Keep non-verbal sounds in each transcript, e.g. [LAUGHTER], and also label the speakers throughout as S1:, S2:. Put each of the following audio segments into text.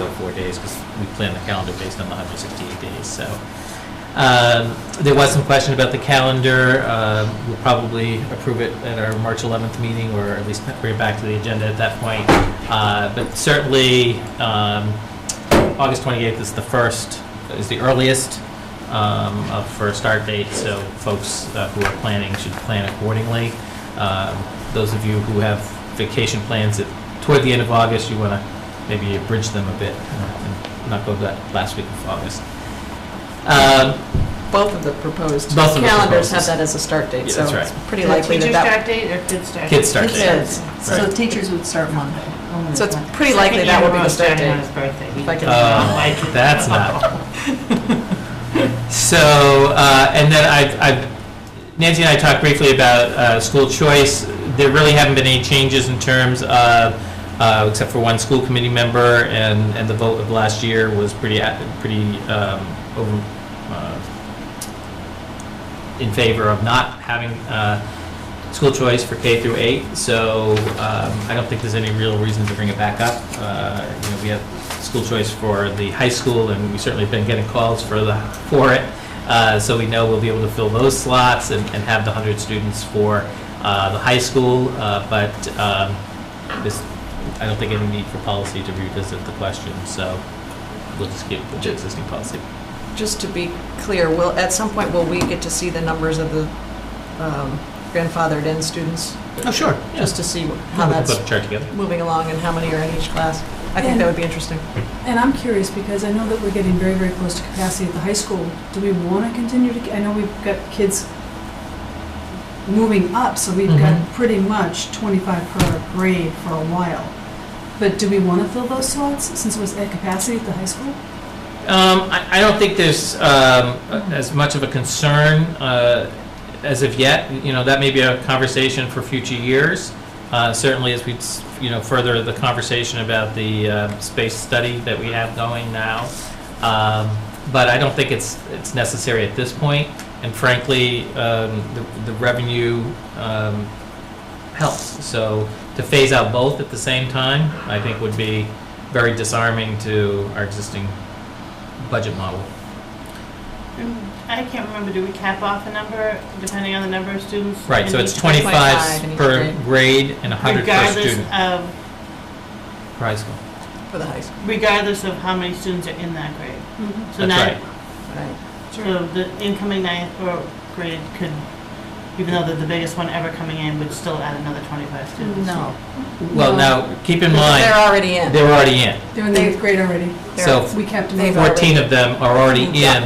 S1: 104 days because we plan the calendar based on the 168 days, so. Um, There was some question about the calendar. Um, We'll probably approve it at our March 11th meeting, or at least bring it back to the agenda at that point. Uh, But certainly, um, August 28th is the first, is the earliest um, of- for a start date, so folks uh, who are planning should plan accordingly. Um, Those of you who have vacation plans at- toward the end of August, you want to maybe abridge them a bit uh, and not go that last week of August. Um,
S2: Both of the proposed
S1: Both of the
S2: calendars have
S1: proposed.
S2: that as a start date,
S1: Yeah,
S2: so
S1: that's right.
S2: it's pretty likely that that,
S3: date or kids' start?
S1: Kids' start date.
S2: Kids.
S4: So the teachers would start Monday. only
S2: so it's
S4: Monday.
S2: pretty likely that will be the start date. If I can-
S1: Uh,
S3: [LAUGHS]
S1: that's not. So, uh, and then I, I, Nancy and I talked briefly about uh, school choice. There really haven't been any changes in terms of, uh, except for one school committee member, and, and the vote of last year was pretty, a- pretty um, over, uh, in favor of not having uh, school choice for K through eight. So um, I don't think there's any real reason to bring it back up. Uh, You know, we have school choice for the high school, and we certainly have been getting calls for the, for it. Uh, So we know we'll be able to fill those slots and and have the 100 students for uh, the high school. Uh, But um, this, I don't think any need for policy to revisit the question, so we'll just keep the existing policy.
S2: Just to be clear, will, at some point, will we get to see the numbers of the um, grandfathered-in students?
S1: Oh, sure. Yes.
S2: Just to see
S1: We
S2: how
S1: can
S2: that's
S1: put a chart together.
S2: moving along and how many are in each class? I think that would be interesting.
S4: And I'm curious because I know that we're getting very, very close to capacity at the high school. Do we want to continue to, I know we've got kids moving up, so we've got
S1: Mhm.
S4: pretty much 25 per grade for a while. But do we want to fill those slots since it was at capacity at the high school?
S1: Um, I, I don't think there's, um, as much of a concern, uh, as of yet. You know, that may be a conversation for future years. Uh, certainly as we, s- you know, further the conversation about the, uh, space study that we have going now. Um, but I don't think it's, it's necessary at this point. And frankly, um, the, the revenue, um, helps. So to phase out both at the same time, I think would be very disarming to our existing budget model.
S3: I can't remember, do we cap off a number, depending on the number of students?
S1: Right, so
S3: in
S1: it's
S3: each-
S1: 25
S2: in each
S1: per grade and 100 per
S3: Regardless
S1: student.
S3: of,
S1: per high school.
S2: For the high school,
S3: regardless of how many students are in that grade. So
S1: That's
S3: nine-
S1: right.
S2: right?
S3: So the incoming ninth or grade could, even though they're the biggest one ever coming in, would still add another 25 students.
S2: No.
S1: Well,
S4: No.
S1: now, keep in
S2: They're
S1: mind,
S2: already in.
S1: they're already in.
S4: They're in the eighth grade already.
S2: They're-
S1: So
S4: We kept them.
S2: They've
S4: over.
S2: already-
S1: 14 of them are already in
S2: Yeah.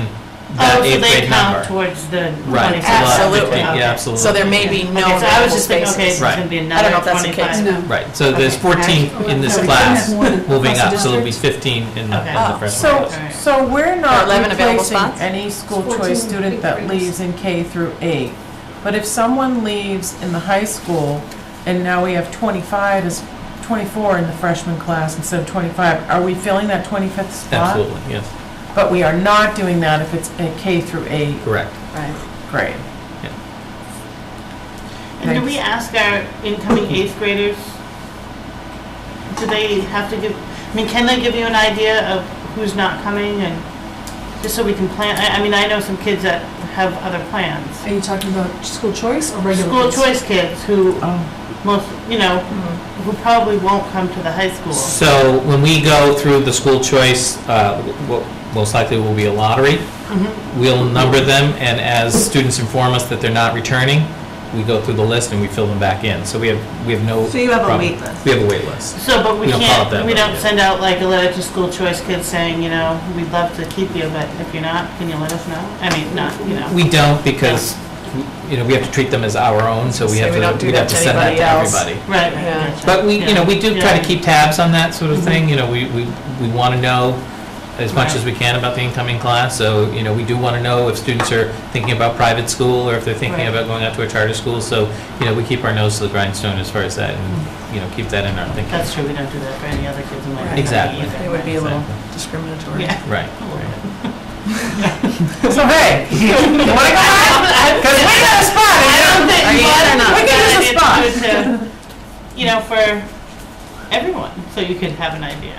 S1: that
S3: Oh, so
S1: eighth
S3: they
S1: grade
S3: count
S1: number.
S3: towards the 25.
S1: Right, so
S2: lot of
S3: Okay.
S2: Absolutely.
S1: Yeah,
S3: Okay.
S1: absolutely.
S2: So there may be no
S3: Okay, so I was
S2: available
S3: just thinking, okay,
S2: spaces.
S3: so it's gonna be
S2: I don't know
S3: another
S2: if that's the case.
S3: twenty-five.
S4: No.
S1: Right, so there's
S2: Okay.
S1: 14 in this
S4: No, Oh, we couldn't
S1: class
S4: have more than
S1: moving
S4: across
S1: up,
S4: the
S1: so there'll be
S4: district.
S1: 15 in the in the
S3: Okay.
S1: freshman
S3: Oh,
S1: class.
S5: So,
S3: Alright.
S5: so we're not
S2: 11 available
S5: replacing
S2: spots?
S5: any school choice
S4: 14
S5: student that
S4: big
S5: leaves in K through eight. But if someone leaves in the high school, and now we have twenty-five, is twenty-four in the freshman class instead of twenty-five, are we filling that twenty-fifth spot?
S1: Absolutely, yes,
S5: But we are not doing that if it's a K through eight
S1: correct.
S2: Right.
S5: grade.
S3: And do we ask our incoming eighth graders, do they have to give, I mean, can they give you an idea of who's not coming and, just so we can plan, I, I mean, I know some kids that have other plans.
S4: Are you talking about school choice or regular?
S3: School
S4: kids?
S3: choice kids who
S5: Oh,
S3: most, you know, who probably won't come to the high school.
S1: So when we go through the school choice, uh, w- most likely will be a lottery. We'll number them, and as students inform us that they're not returning, we go through the list and we fill them back in. So we have, we have no.
S5: So you have a
S1: problem.
S5: wait list.
S1: We have a wait list.
S3: So, but
S1: We
S3: we
S1: don't call it that,
S3: can't, we
S1: but
S3: don't
S1: yeah.
S3: send out like a letter to school choice kids saying, you know, we'd love to keep you, but if you're not, can you let us know? I mean, not, you know.
S1: We don't because, you know, we have to treat them as our own, so we
S2: Say
S1: have
S2: we don't
S1: to,
S2: do
S1: we
S2: that
S1: have to
S2: to
S1: send that to
S2: anybody else.
S1: everybody.
S3: Right,
S2: Yeah.
S3: right. gotcha.
S1: But we, you know, we do try
S3: Yeah. Mm-hmm.
S1: to keep tabs on that sort of thing, you know, we, we, we want to know as much as we can about the incoming class, so, you know, we do want to know if students are thinking about private school, or if they're thinking
S3: Right.
S1: about going out to a charter school, so, you know, we keep our nose to the grindstone as far as that, and, you know, keep that in our thinking.
S3: That's true, we don't do that for any other kids in my
S2: Right.
S3: family
S1: Exactly.
S3: either.
S2: It would be a little
S1: Exactly.
S2: discriminatory.
S3: Yeah.
S1: Right.
S5: so hey, [LAUGHS] you
S2: [LAUGHS]
S5: wanna go back? Cause we got a spot, you know?
S3: Are you
S2: in or not?
S5: We can use a spot.
S3: [LAUGHS] You know, for everyone, so you could have an idea.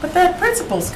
S5: But that principal's